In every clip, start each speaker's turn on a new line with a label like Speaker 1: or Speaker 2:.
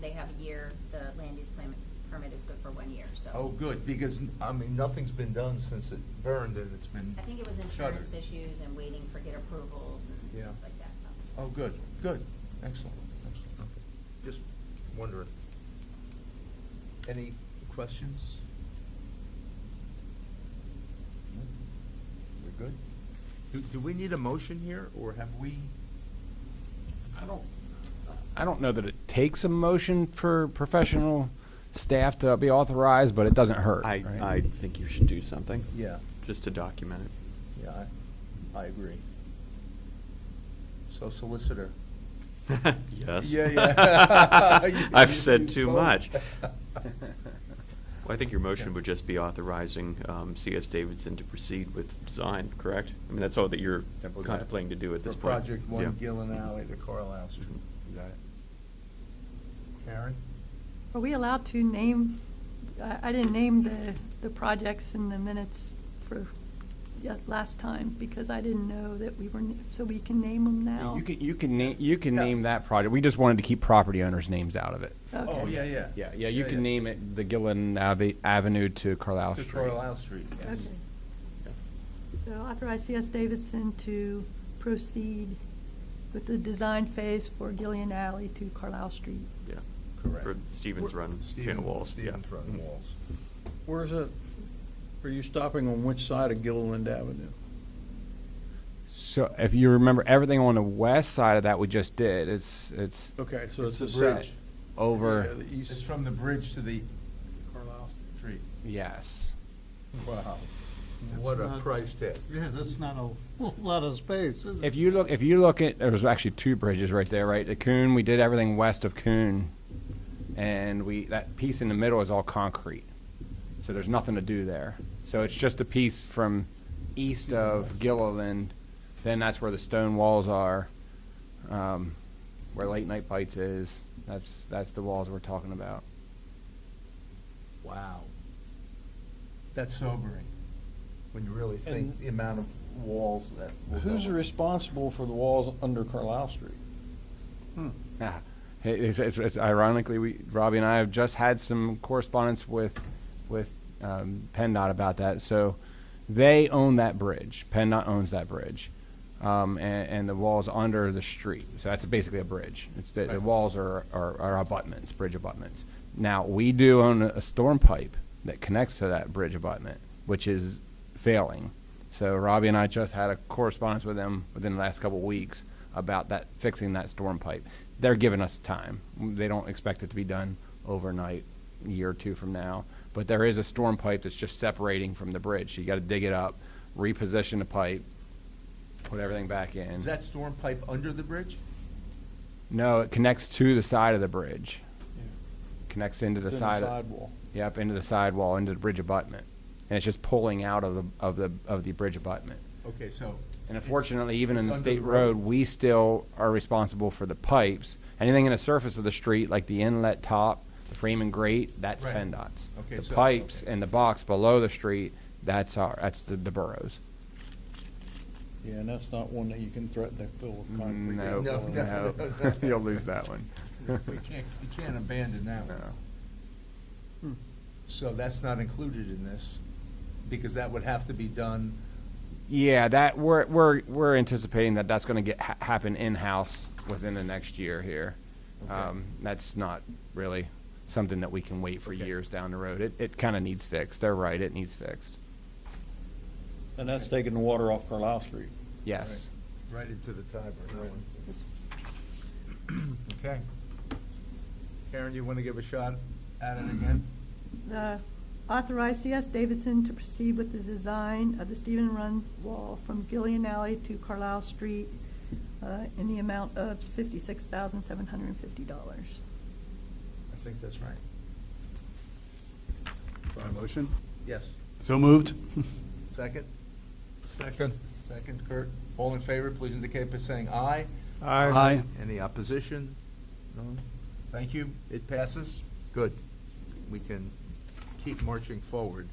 Speaker 1: they have a year, the land use plan permit is good for one year, so.
Speaker 2: Oh, good, because, I mean, nothing's been done since it burned and it's been
Speaker 1: I think it was
Speaker 2: shuttered.
Speaker 1: insurance issues and waiting for get approvals and
Speaker 2: Yeah.
Speaker 1: things like that, so.
Speaker 2: Oh, good, good, excellent, excellent. Okay. Just wondering. Any questions? No? We're good? Do, do we need a motion here, or have we?
Speaker 3: I don't,
Speaker 4: I don't know that it takes a motion for professional staff to be authorized, but it doesn't hurt.
Speaker 3: I,
Speaker 4: right?
Speaker 3: I think you should do something.
Speaker 2: Yeah.
Speaker 3: Just to document it.
Speaker 2: Yeah, I, I agree. So solicitor.
Speaker 3: Yes.
Speaker 2: Yeah, yeah. You-
Speaker 3: I've
Speaker 2: you- you
Speaker 3: said too
Speaker 2: both.
Speaker 3: much. Well, I think your motion would just be authorizing um, CS Davidson to proceed with design, correct? I mean, that's all that you're
Speaker 2: Simple as that.
Speaker 3: contemplating to do at this
Speaker 2: For
Speaker 3: point.
Speaker 2: Project
Speaker 3: Yeah.
Speaker 2: One Gillen Alley to Carlisle Street. You got it. Karen?
Speaker 5: Are we allowed to name, I I didn't name the, the projects in the minutes for yet last time because I didn't know that we were, n- so we can name them now?
Speaker 4: You can, you can name, you can
Speaker 2: Yeah.
Speaker 4: name that project. We just wanted to keep property owners' names out of it.
Speaker 5: Okay.
Speaker 2: Oh, yeah, yeah.
Speaker 4: Yeah, yeah, you can name it the Gillen Ave- Avenue to Carlisle
Speaker 2: To
Speaker 4: Street.
Speaker 2: Carlisle Street, yes.
Speaker 5: Okay. So authorize C.S. Davidson to proceed with the design phase for Gillian Alley to Carlisle Street.
Speaker 3: Yeah.
Speaker 2: Correct.
Speaker 3: For Stevens Run, Channel
Speaker 2: Stephen-
Speaker 3: Walls. yeah.
Speaker 2: Stephen's Run Walls.
Speaker 6: Where's it, are you stopping on which side of Gilliland Avenue?
Speaker 4: So if you remember, everything on the west side of that we just did, it's, it's
Speaker 6: Okay, so
Speaker 2: It's
Speaker 6: it's
Speaker 2: the
Speaker 6: the south.
Speaker 2: bridge.
Speaker 6: Yeah,
Speaker 4: over,
Speaker 6: the east.
Speaker 2: It's from the bridge to the
Speaker 6: Carlisle.
Speaker 2: street.
Speaker 4: yes.
Speaker 2: Wow.
Speaker 7: That's
Speaker 2: What a
Speaker 7: not-
Speaker 2: price tag.
Speaker 7: Yeah, that's not a lot of space, is it?
Speaker 4: If you look, if you look at, there was actually two bridges right there, right? The Coon, we did everything west of Coon, and we, that piece in the middle is all concrete. So there's nothing to do there. So it's just a piece from east of Gilliland, then that's where the stone walls are, um, where Late Night Bites is. That's, that's the walls we're talking about.
Speaker 2: Wow. That's sobering, when you really think
Speaker 6: And-
Speaker 2: the amount of walls that. will go
Speaker 6: Who's
Speaker 2: up.
Speaker 6: responsible for the walls under Carlisle Street?
Speaker 7: Hmm.
Speaker 4: Yeah. It- It's, it's, it's ironically, we, Robbie and I have just had some correspondence with, with um, PennDOT about that. So they own that bridge. PennDOT owns that bridge. Um, and, and the walls under the street. So that's basically a bridge. It's the, the
Speaker 2: Right.
Speaker 4: walls are, are, are abutments, bridge abutments. Now, we do own a storm pipe that connects to that bridge abutment, which is failing. So Robbie and I just had a correspondence with them within the last couple of weeks about that, fixing that storm pipe. They're giving us time. They don't expect it to be done overnight, a year or two from now. But there is a storm pipe that's just separating from the bridge. You gotta dig it up, reposition the pipe, put everything back in.
Speaker 2: Is that storm pipe under the bridge?
Speaker 4: No, it connects to the side of the bridge. Connects into the
Speaker 6: It's in
Speaker 4: side. of-
Speaker 6: Sidewall.
Speaker 4: Yep, into the sidewall, into the bridge abutment. And it's just pulling out of the, of the, of the bridge abutment.
Speaker 2: Okay, so.
Speaker 4: And
Speaker 2: it's-
Speaker 4: unfortunately, even in
Speaker 2: it's
Speaker 4: the
Speaker 2: under
Speaker 4: state road, we still are responsible for the pipes. Anything in the surface of the street, like the inlet top, the frame and grate, that's
Speaker 2: Right.
Speaker 4: PennDOT's.
Speaker 2: Okay,
Speaker 4: The
Speaker 2: so-
Speaker 4: pipes
Speaker 2: okay.
Speaker 4: and the box below the street, that's our, that's the, the boroughs.
Speaker 6: Yeah, and that's not one that you can threaten to fill with concrete.
Speaker 4: No,
Speaker 2: No, no,
Speaker 4: no,
Speaker 2: no, no.
Speaker 4: you'll lose that one.
Speaker 2: We can't, we can't abandon that one.
Speaker 4: No.
Speaker 2: So that's not included in this, because that would have to be done,
Speaker 4: Yeah, that, we're, we're, we're anticipating that that's gonna get, ha- happen in-house within the next year here.
Speaker 2: Okay.
Speaker 4: Um, that's not really something that we can wait for
Speaker 2: Okay.
Speaker 4: years down the road. It, it kinda needs fixed. They're right, it needs fixed.
Speaker 6: And that's taking the water off Carlisle Street.
Speaker 4: Yes.
Speaker 2: right into the timer. Okay. Karen, you want to give a shot at it again?
Speaker 5: The authorize C.S. Davidson to proceed with the design of the Stephen Run Wall from Gillian Alley to Carlisle Street uh, in the amount of fifty-six thousand seven hundred and fifty dollars.
Speaker 2: I think that's right.
Speaker 7: Motion?
Speaker 2: Yes.
Speaker 7: So moved.
Speaker 2: Second? Second. Second, Kurt. All in favor, please indicate by saying aye.
Speaker 7: Aye.
Speaker 2: Any opposition? No? Thank you. It passes? Good. We can keep marching forward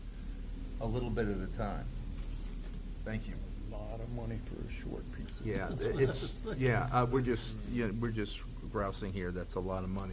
Speaker 2: a little bit at a time. Thank you.
Speaker 6: Lot of money for a short piece of.
Speaker 2: Yeah,
Speaker 7: That's what I
Speaker 2: it's,
Speaker 7: was thinking.
Speaker 2: yeah, uh, we're just, yeah, we're just grousing here. That's a lot of money.